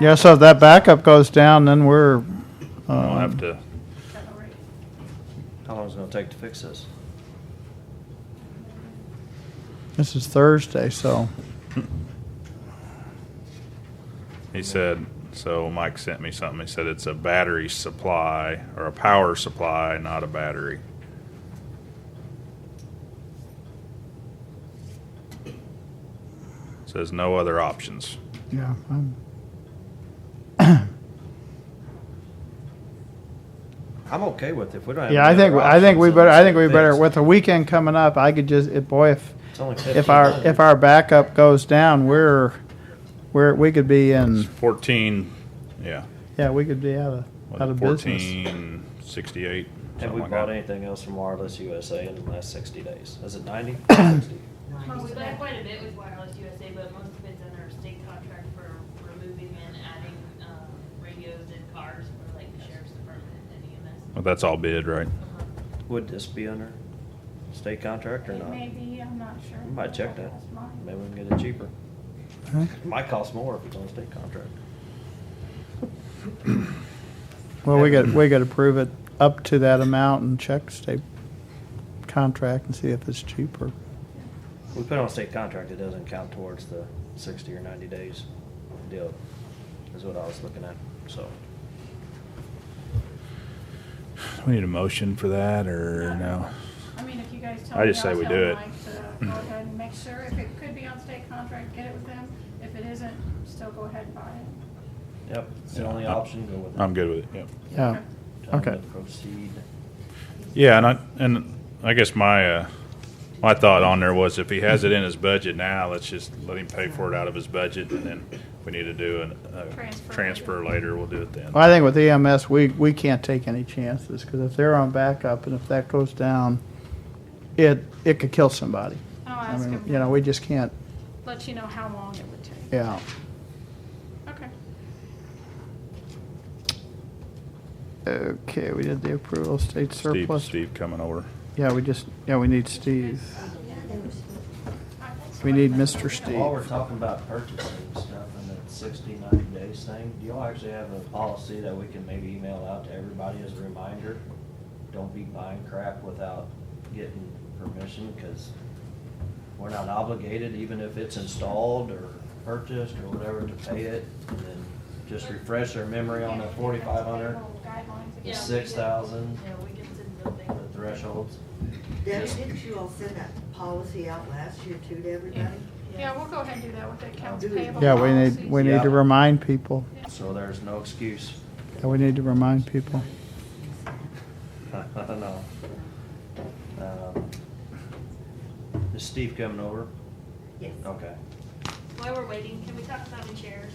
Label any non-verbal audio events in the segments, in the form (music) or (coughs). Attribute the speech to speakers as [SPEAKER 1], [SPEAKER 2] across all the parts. [SPEAKER 1] Yeah, so if that backup goes down, then we're,
[SPEAKER 2] I'll
[SPEAKER 1] uh,
[SPEAKER 2] have to,
[SPEAKER 3] How long is it gonna take to fix this?
[SPEAKER 1] this is Thursday, so,
[SPEAKER 2] he said, so Mike sent me something. He said it's a battery supply or a power supply, not a battery. Says no other options.
[SPEAKER 1] yeah. I'm-
[SPEAKER 3] I'm okay with it. If we don't have.
[SPEAKER 1] Yeah,
[SPEAKER 3] any
[SPEAKER 1] I think,
[SPEAKER 3] other
[SPEAKER 1] I think we
[SPEAKER 3] options,
[SPEAKER 1] better, I
[SPEAKER 3] let's
[SPEAKER 1] think we
[SPEAKER 3] get it
[SPEAKER 1] better,
[SPEAKER 3] fixed.
[SPEAKER 1] with the weekend coming up, I could just, if, boy, if,
[SPEAKER 3] It's only
[SPEAKER 1] if our, if our backup goes down, we're, we're, we could be
[SPEAKER 2] It's
[SPEAKER 1] in,
[SPEAKER 2] fourteen, yeah.
[SPEAKER 1] yeah, we could be out of,
[SPEAKER 2] what,
[SPEAKER 1] out of business.
[SPEAKER 2] Fourteen sixty-eight,
[SPEAKER 3] Have
[SPEAKER 2] something
[SPEAKER 3] we
[SPEAKER 2] like
[SPEAKER 3] bought
[SPEAKER 2] that.
[SPEAKER 3] anything else from Wireless USA in the last sixty days? Is
[SPEAKER 1] (coughs)
[SPEAKER 3] it ninety?
[SPEAKER 4] Well, we've done quite a bit with Wireless USA, but most of it's under state contract for removing and adding, um, radios and cars for like the sheriff's department and EMS.
[SPEAKER 2] Well, that's all bid, right?
[SPEAKER 4] Uh-huh.
[SPEAKER 3] Would this be under state contract or
[SPEAKER 5] It
[SPEAKER 3] not?
[SPEAKER 5] may be, I'm not sure.
[SPEAKER 3] We might check that.
[SPEAKER 5] That's mine.
[SPEAKER 3] Maybe we can get it cheaper.
[SPEAKER 1] Huh?
[SPEAKER 3] Might cost more if it's on state contract.
[SPEAKER 1] Well, we got, we gotta prove it up to that amount and check state contract and see if it's cheaper.
[SPEAKER 3] If We put it on state contract, it doesn't count towards the sixty or ninety days deal, is what I was looking at, so.
[SPEAKER 2] We need a motion for that or no?
[SPEAKER 5] I mean, if you guys tell
[SPEAKER 2] I
[SPEAKER 5] me, I'll
[SPEAKER 2] just say
[SPEAKER 5] tell
[SPEAKER 2] we do it.
[SPEAKER 5] Mike to go ahead and make sure, if it could be on state contract, get it with them. If it isn't, still go ahead and buy it.
[SPEAKER 3] Yep, it's the only
[SPEAKER 2] Yeah, I-
[SPEAKER 3] option, go with it.
[SPEAKER 2] I'm good with it, yeah.
[SPEAKER 1] Yeah,
[SPEAKER 3] Tell them
[SPEAKER 1] okay.
[SPEAKER 3] to Proceed.
[SPEAKER 2] Yeah, and I, and I guess my, uh, my thought on there was if he has it in his budget now, let's just let him pay for it out of his budget and then if we need to do an, a
[SPEAKER 5] Transfer.
[SPEAKER 2] transfer later, we'll do it then.
[SPEAKER 1] Well, I think with EMS, we, we can't take any chances, because if they're on backup and if that goes down, it, it could kill somebody.
[SPEAKER 5] I'll
[SPEAKER 1] I
[SPEAKER 5] ask
[SPEAKER 1] mean,
[SPEAKER 5] him.
[SPEAKER 1] you know, we just can't,
[SPEAKER 5] Let you know how long it would take.
[SPEAKER 1] yeah.
[SPEAKER 5] Okay.
[SPEAKER 1] Okay, we did the approval of state
[SPEAKER 2] Steve,
[SPEAKER 1] surplus.
[SPEAKER 2] Steve coming over.
[SPEAKER 1] Yeah, we just, yeah, we need Steve. We need Mr.
[SPEAKER 3] While
[SPEAKER 1] Steve.
[SPEAKER 3] we're talking about purchasing stuff and that 60, 90 days thing, do y'all actually have a policy that we can maybe email out to everybody as a reminder? Don't be buying crap without getting permission, because we're not obligated, even if it's installed or purchased or whatever, to pay it. And then just refresh their memory on the 4,500,
[SPEAKER 5] Guidelines
[SPEAKER 4] Yeah, we
[SPEAKER 3] the
[SPEAKER 4] did.
[SPEAKER 3] 6,000,
[SPEAKER 4] Yeah, we can send
[SPEAKER 3] the
[SPEAKER 4] something.
[SPEAKER 3] thresholds.
[SPEAKER 6] Debbie, didn't you all send that policy out last year too to everybody?
[SPEAKER 5] Yeah, we'll go ahead and do that with the accounts
[SPEAKER 6] Do it.
[SPEAKER 5] payable.
[SPEAKER 1] Yeah, we need, we need
[SPEAKER 3] Yeah.
[SPEAKER 1] to remind people.
[SPEAKER 3] So there's no excuse.
[SPEAKER 1] Yeah, we need to remind people.
[SPEAKER 3] I don't know. Um, Is Steve coming over?
[SPEAKER 6] Yes.
[SPEAKER 3] Okay.
[SPEAKER 4] While we're waiting, can we talk about the chairs?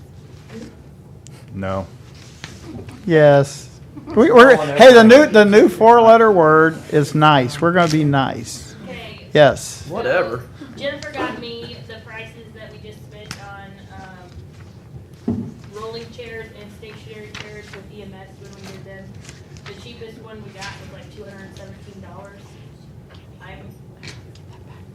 [SPEAKER 2] No.
[SPEAKER 1] Yes. We, we're, hey, the new, the new four-letter word is nice. We're gonna be nice.
[SPEAKER 4] Okay.
[SPEAKER 1] Yes.
[SPEAKER 3] Whatever.
[SPEAKER 4] Jennifer got me the prices that we just spent on, um, rolling chairs and stationary chairs with EMS when we did them. The cheapest one we got was like two hundred and seventeen dollars. I'm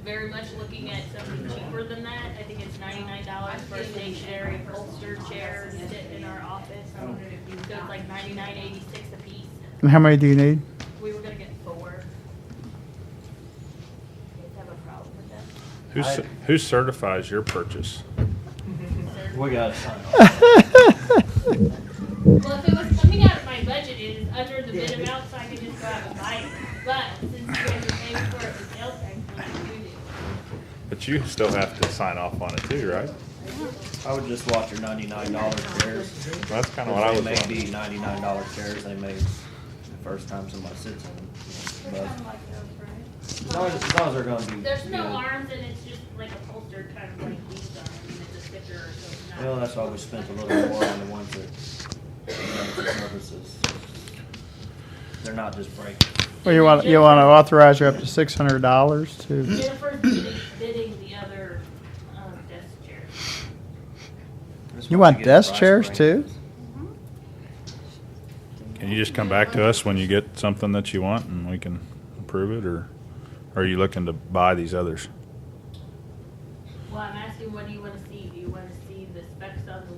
[SPEAKER 4] very much looking at something cheaper than that. I think it's ninety-nine dollars for a stationary holster chair to sit in our office. So it's like ninety-nine eighty-six a piece.
[SPEAKER 1] And how many do you need? (laughs)
[SPEAKER 4] We were gonna get four. You guys have a problem with that?
[SPEAKER 2] Who,
[SPEAKER 3] I-
[SPEAKER 2] cer- who certifies your purchase?
[SPEAKER 3] We got sign off.
[SPEAKER 4] Well, if it was coming out of my budget, it is under the bid amount, so I can just go out and buy it. But since you guys are paying for it with sales tax, what do you do?
[SPEAKER 2] But you still have to sign off on it too, right?
[SPEAKER 3] I would just watch your ninety-nine dollar chairs.
[SPEAKER 2] That's kind of what I was
[SPEAKER 3] They make the
[SPEAKER 2] wondering.
[SPEAKER 3] ninety-nine dollar chairs they made the first time somebody sits in them.
[SPEAKER 5] They're
[SPEAKER 3] But
[SPEAKER 5] kind of like those, right?
[SPEAKER 3] as long as, as long as they're gonna be.
[SPEAKER 4] There's no
[SPEAKER 3] good.
[SPEAKER 4] arms and it's just like a holster kind of like these are, and it's a sticker, so it's not.
[SPEAKER 3] Well, that's why we spent a little more on the ones that, you know, for services. They're not just breaking.
[SPEAKER 1] Well, you want, you want to authorize her up to six hundred dollars to,
[SPEAKER 4] Jennifer's bidding, bidding the other, um, desk chair.
[SPEAKER 1] You want desk chairs too?
[SPEAKER 2] Can you just come back to us when you get something that you want and we can approve it or, or are you looking to buy these others?
[SPEAKER 4] Well, I'm asking, what do you wanna see? Do you wanna see the specs on the